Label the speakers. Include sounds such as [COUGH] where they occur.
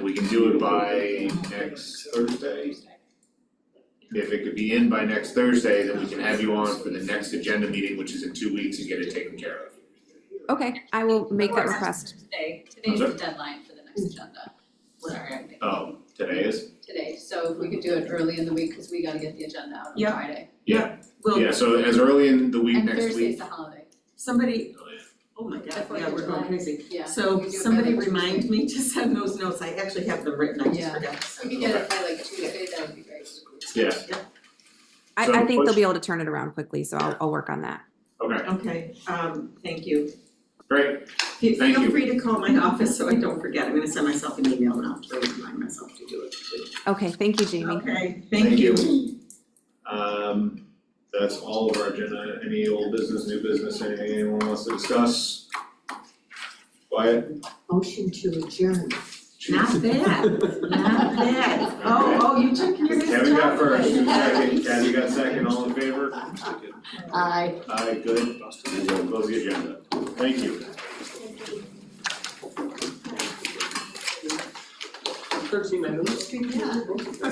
Speaker 1: can do it by next Thursday. If it could be in by next Thursday, then we can have you on for the next agenda meeting, which is in two weeks, and get it taken care of.
Speaker 2: Okay, I will make that
Speaker 3: Or-
Speaker 2: request.
Speaker 3: Today, today's
Speaker 1: I'm
Speaker 3: the deadline for the next agenda. Sorry, I'm thinking
Speaker 1: Oh, today is?
Speaker 3: today, so if we could do it early in the week, cause we gotta get the agenda out on
Speaker 4: Yeah.
Speaker 3: Friday.
Speaker 4: Well,
Speaker 1: Yeah, so as early in the week
Speaker 3: And
Speaker 1: next
Speaker 3: Thursday's
Speaker 1: week.
Speaker 3: the holiday,
Speaker 4: somebody, oh my god,
Speaker 3: The Fourth
Speaker 4: yeah,
Speaker 3: of
Speaker 4: we're going
Speaker 3: July.
Speaker 4: crazy.
Speaker 3: yeah. we
Speaker 4: So
Speaker 3: do it by
Speaker 4: somebody
Speaker 3: like
Speaker 4: remind
Speaker 3: Tuesday.
Speaker 4: me to send those notes, I actually have them written, I just
Speaker 3: Yeah.
Speaker 4: forgot.
Speaker 3: If we could get it by like Tuesday, that would be great.
Speaker 1: Yeah,
Speaker 2: I,
Speaker 1: So,
Speaker 2: I think they'll
Speaker 1: what's-
Speaker 2: be able to turn it around quickly, so I'll, I'll work on that.
Speaker 1: okay,
Speaker 4: Okay, um, thank you.
Speaker 1: great,
Speaker 4: Fe-
Speaker 1: Thank you.
Speaker 4: Feel free to call my office so I don't forget, I'm gonna send myself an email and I'll try to remind myself to do it.
Speaker 2: Okay, thank you, Jamie.
Speaker 4: Okay,
Speaker 1: thank
Speaker 4: thank you.
Speaker 1: you. Um, that's all of our agenda, any old business, new business, anything anyone wants to discuss? Quiet?
Speaker 5: Motion to adjourn.
Speaker 4: Not bad,
Speaker 1: [LAUGHS]
Speaker 4: not bad. Oh, oh, you took your best
Speaker 1: Kevin got
Speaker 4: job. [LAUGHS]
Speaker 1: first, who's second, Kathy got second, all in favor?
Speaker 5: Aye.
Speaker 1: Aye, good, we'll close the agenda, thank you.
Speaker 6: Thirteen minutes.